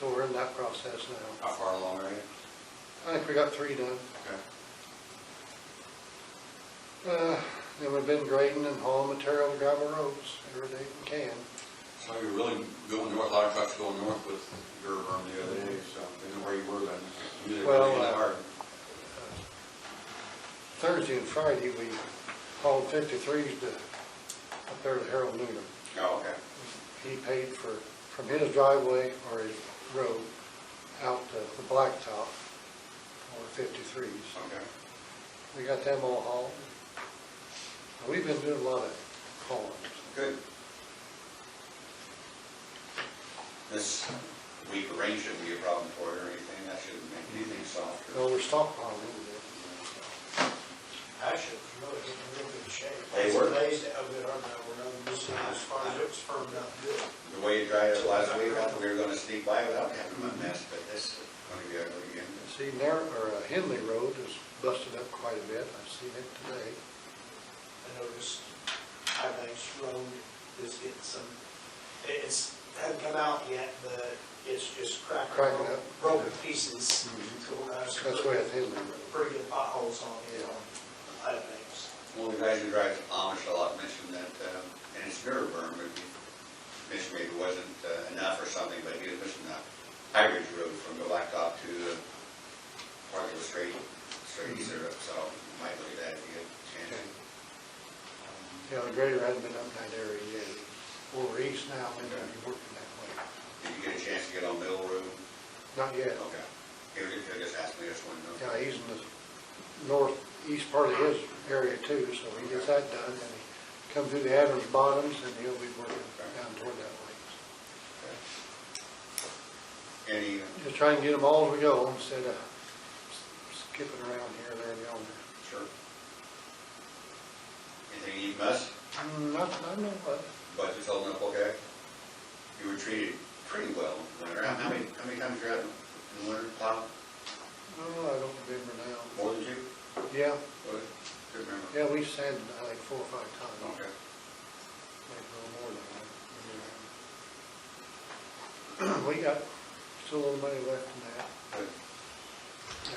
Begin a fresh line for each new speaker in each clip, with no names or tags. So we're in that process now.
How far along are you?
I think we got three done.
Okay.
Uh, Then we've been grading and hauling material to gravel roads every day we can.
So you're really going north, a lot of trucks going north with your berm the other day, so I didn't know where you were then. You did it
Well,
really
uh,
hard.
Thursday and Friday, we hauled 53s to, up there to Harold Newman.
Oh, okay.
He paid for, from his driveway or his road out to the blacktop for 53s.
Okay.
We got them all hauled. We've been doing a lot of hauling.
Good. This week of rain shouldn't be a problem for you or anything. That shouldn't make anything softer.
So we're stockpiling.
Actually, it's really getting in real good shape.
They were.
It's amazing how good our groundwater is, it's as far as it's firmed up good.
The way you dried it last week, I thought we were gonna sneak by without having a mess, but this is gonna be ugly again.
See, Nar, or uh, Henley Road is busted up quite a bit, I've seen it today.
I noticed High Banks Road is getting some, it- it's, hasn't come out yet, but it's just cracking.
Cracking up.
broken- Broken pieces.
Mhm.
So, uh, it's
That's where it's headed.
Pretty good potholes on it, on High Banks.
Well, the guys who drive Amish a lot mentioned that, uh, and it's mirror burn, maybe, mentioned maybe it wasn't uh, enough or something, but he was missing that high ridge road from the blacktop to the part of the straight, straight syrup, so might look at that if you get a chance.
You know, the grader hasn't been up in that area yet. Over east now, maybe you're working that way.
Did you get a chance to get on Mill Road?
Not yet.
Okay. He was, he just asked me this one, though.
Yeah, he's in the northeast part of his area too, so he gets that done, and he comes through the Adams Bottoms, and he'll be working down toward that way.
Okay. Any, uh,
Just try and get them all as we go, instead of skipping around here, there, and yonder.
sure. Anything you must?
Mm, Not, I know, but
budget's holding up okay? You were treated pretty well in winter. How how many, how many times you're out in the winter plow?
Oh, I don't remember now.
More than two?
Yeah,
What? Couldn't remember.
yeah, we sanded it like four or five times,
Okay.
maybe a little more than that. We got still a little money left in that.
Good.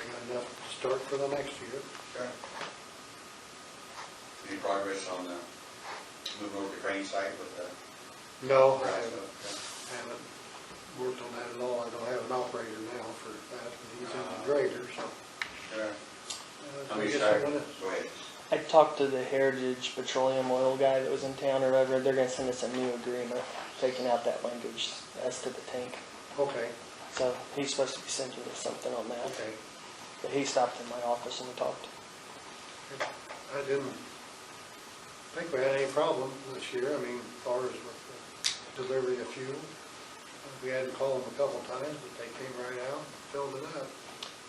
I got enough to start for the next year.
Okay. Any progress on the, moving over to crane site with the?
No, I haven't,
Okay.
haven't worked on that at all. I don't have an operator now for that, and he's in the grader, so.
Okay.
uh,
How
I
many
guess
side,
I'm gonna-
go ahead.
I talked to the Heritage Petroleum Oil guy that was in town or whatever. They're gonna send us a new agreement, taking out that language as to the tank.
Okay,
So he's supposed to be sending us something on that.
okay.
But he stopped in my office and we talked.
I didn't think we had any problem this year, I mean, as far as with the delivery of fuel. We had to call them a couple times, but they came right out and filled it up.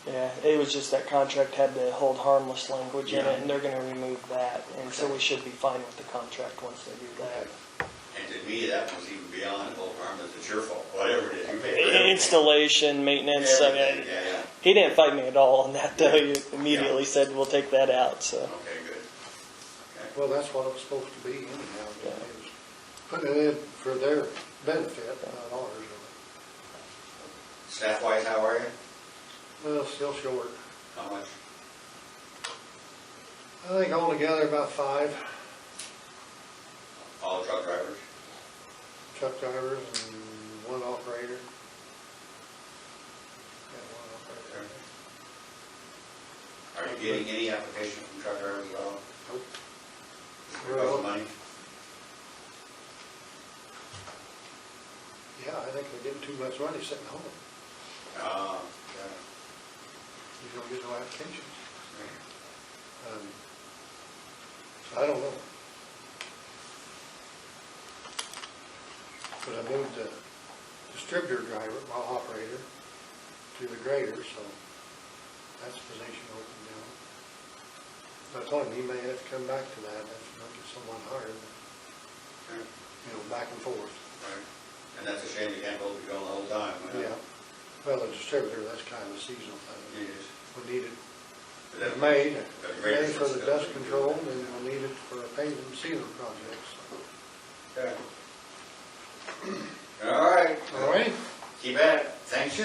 Yeah, it was just that contract had the hold harmless language in it and they're gonna remove that. And so we should be fine with the contract once they do that.
And to me, that was even beyond the whole farm, it's your fault, whatever it is, you pay for
I-
everything.
Installation, maintenance, I
Everything,
mean,
Yeah, yeah.
he didn't fight me at all on that though. He immediately said, we'll take that out, so.
Okay, good. Okay.
Well, that's what it was supposed to be anyhow,
Yeah.
it was putting it in for their benefit, not ours. really.
Staff-wise, how are you?
Well, still short.
How much?
I think altogether about five
All truck drivers?
truck drivers and one operator. Got one operator.
Are you getting any application from truck drivers at all?
Nope.
About the money?
Yeah, I think they're getting too much money sitting home.
Uh,
You don't get no applications.
yeah.
Um, I don't know. But I moved the distributor driver, my operator, to the grader, so that's the position open now. I told him he may have to come back to that if you don't get someone hired,
Okay,
you know, back and forth.
right. And that's a shame you can't hold it going the whole time. huh?
Yeah. Well, the distributor, that's kind of a seasonal thing.
It is.
We need it
But that's-
made,
that's great.
made for the dust control, and we'll need it for paving and sealing projects.
Okay. All right.
All right?
Keep at it. thanks